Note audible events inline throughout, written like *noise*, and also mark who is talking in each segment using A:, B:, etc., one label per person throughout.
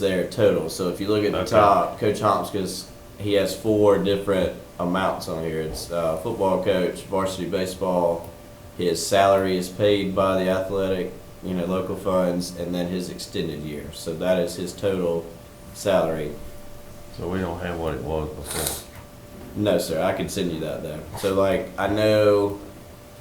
A: there total. So if you look at the
B: Okay.
A: top, Coach Homskis, he has four different amounts on here. It's uh, football coach, varsity baseball. His salary is paid by the athletic, you know, local funds, and then his extended year. So that is his total salary.
B: So we don't have what it was before.
A: No, sir. I can send you that though. So like I know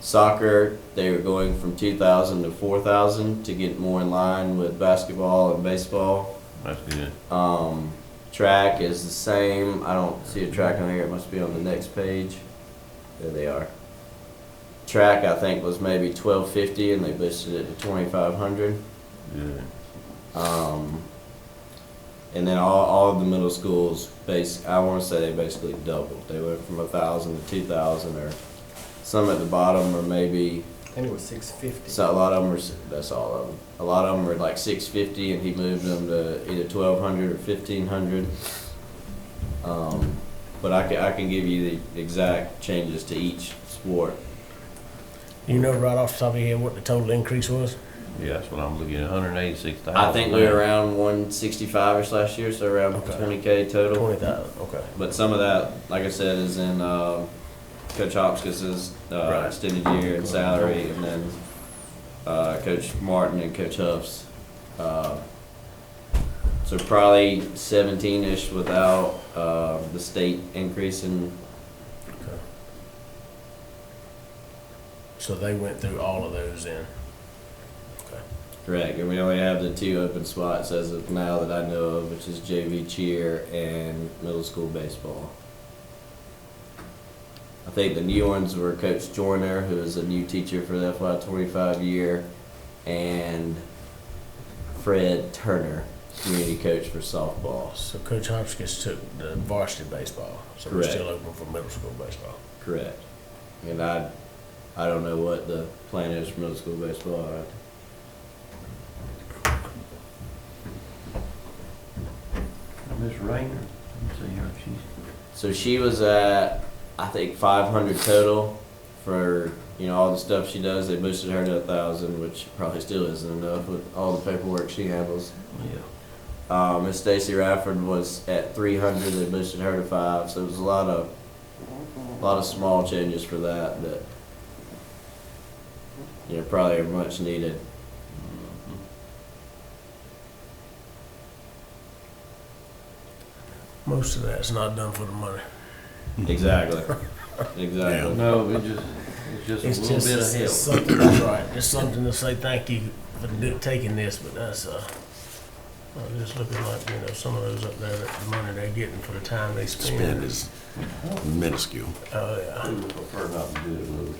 A: soccer, they were going from two thousand to four thousand to get more in line with basketball and baseball.
B: That's good.
A: Um, track is the same. I don't see a track on here. It must be on the next page. There they are. Track I think was maybe twelve fifty, and they boosted it to twenty five hundred.
B: Good.
A: Um, and then all, all of the middle schools base I want to say they basically doubled. They went from a thousand to two thousand, or some at the bottom, or maybe
C: I think it was six fifty.
A: so a lot of them were, that's all of them. A lot of them were like six fifty, and he moved them to either twelve hundred or fifteen hundred. Um, but I can, I can give you the exact changes to each sport.
D: You know right off the top of your head what the total increase was?
B: Yeah, that's what I'm looking at, hundred and eighty-six thousand.
A: I think we were around one sixty-five-ish last year, so around
D: Okay.
A: twenty K total.
D: Twenty thousand, okay.
A: But some of that, like I said, is in, uh, Coach Hopkins's, uh,
D: Right.
A: extended year and salary, and then, uh, Coach Martin and Coach Huff's. uh, So probably seventeen-ish without, uh, the state increase in,
D: Okay. So they went through all of those in.
A: correct, and we only have the two open spots as of now that I know of, which is JV cheer and middle school baseball. I think the new ones were Coach Joyner, who is a new teacher for the FY twenty-five year, and Fred Turner, community coach for softball.
D: So Coach Hopkins took the varsity baseball, so we're
A: Correct.
D: still open for middle school baseball.
A: Correct. And I, I don't know what the plan is for middle school baseball. I-
B: Miss Rayner, let me see her, she's,
A: So she was at, I think, five hundred total for you know all the stuff she does. They boosted her to a thousand, which probably still isn't enough with all the paperwork she handles.
B: yeah.
A: Uh, Miss Stacy Radford was at 300. They boosted her to five. So it was a lot of, a lot of small changes for that that, you know, probably are much needed.
D: Most of that's not done for the money.
A: Exactly. exactly.
B: No, it just, it's
D: It's
B: just a little
D: just
B: bit of
D: it's
B: help.
D: something that's right. It's something to say thank you for do- taking this, but that's uh, I'm just looking like you know some of those up there that the money they're getting for the time they spend.
E: spend is minuscule.
D: Oh yeah.
B: I would prefer not to do it, Louis.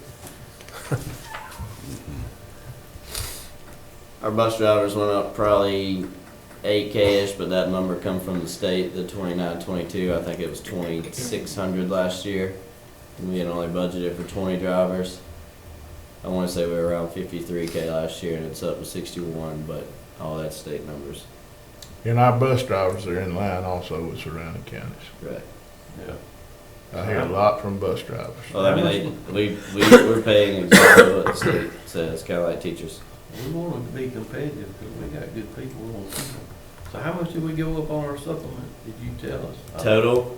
A: Our bus drivers went up probably 8K-ish, but that number come from the state, the 29, 22. I think it was 2,600 last year. And we had only budgeted for 20 drivers. I want to say we were around 53K last year, and it's up to 61, but all that state numbers.
F: And our bus drivers are in line also with surrounding counties.
A: Correct.
B: Yeah.
F: I hear a lot from bus drivers.
A: Well, I mean, they, we, we, we're paying exactly what the state says, kind of like teachers.
B: We want to be competitive because we got good people. We want people. So how much did we go up on our supplement? Did you tell us?
A: Total,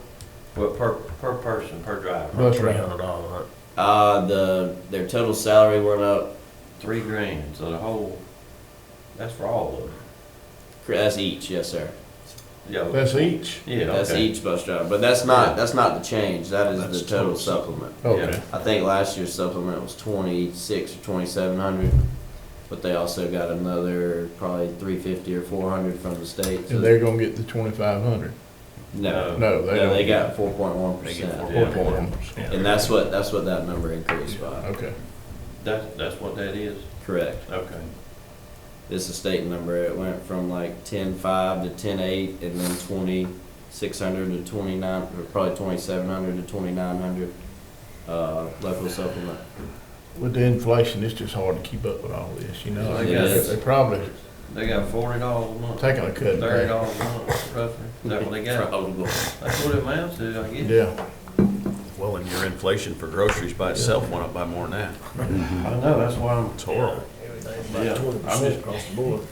B: Well, per, per person, per driver,
F: Bus
D: Three
F: driver.
D: hundred dollars.
A: uh, the, their total salary went up,
B: three grand, so the whole, that's for all of them.
A: that's each, yes, sir.
B: Yeah,
F: That's each?
B: yeah,
A: That's
B: okay.
A: each bus driver, but that's not, that's not the change, that is the total supplement.
F: Okay.
A: I think last year's supplement was twenty-six or twenty-seven hundred, but they also got another probably three fifty or four hundred from the state. so-
F: And they're gonna get the twenty-five hundred?
A: No,
F: No, they
A: no,
F: don't.
A: they got four point one
D: They get
A: percent,
B: Yeah.
F: Four point one percent.
A: and that's what, that's what that number increased by,
F: Okay.
B: That's, that's what that is?
A: correct.
B: Okay.
A: It's a state number, it went from like ten-five to ten-eight, and then twenty-six hundred to twenty-nine, or probably twenty-seven hundred to twenty-nine hundred, uh, local supplement.
F: With the inflation, it's just hard to keep up with all this, you know?
B: It
A: is.
F: They're probably
B: They got forty dollars a month,
F: taking a cut. in
B: thirty
F: pay.
B: dollars a month roughly. Is that what
A: *laughs*
B: they got?
A: Probably.
B: That's what it amounts to, I guess.
F: Yeah.
E: Well, and your inflation for groceries by itself went up by more than that.
B: I know, that's why I'm.
E: It's horrible.
D: Everything's
B: Yeah,
D: about
B: I
D: twenty
B: mean-
D: percent across the board.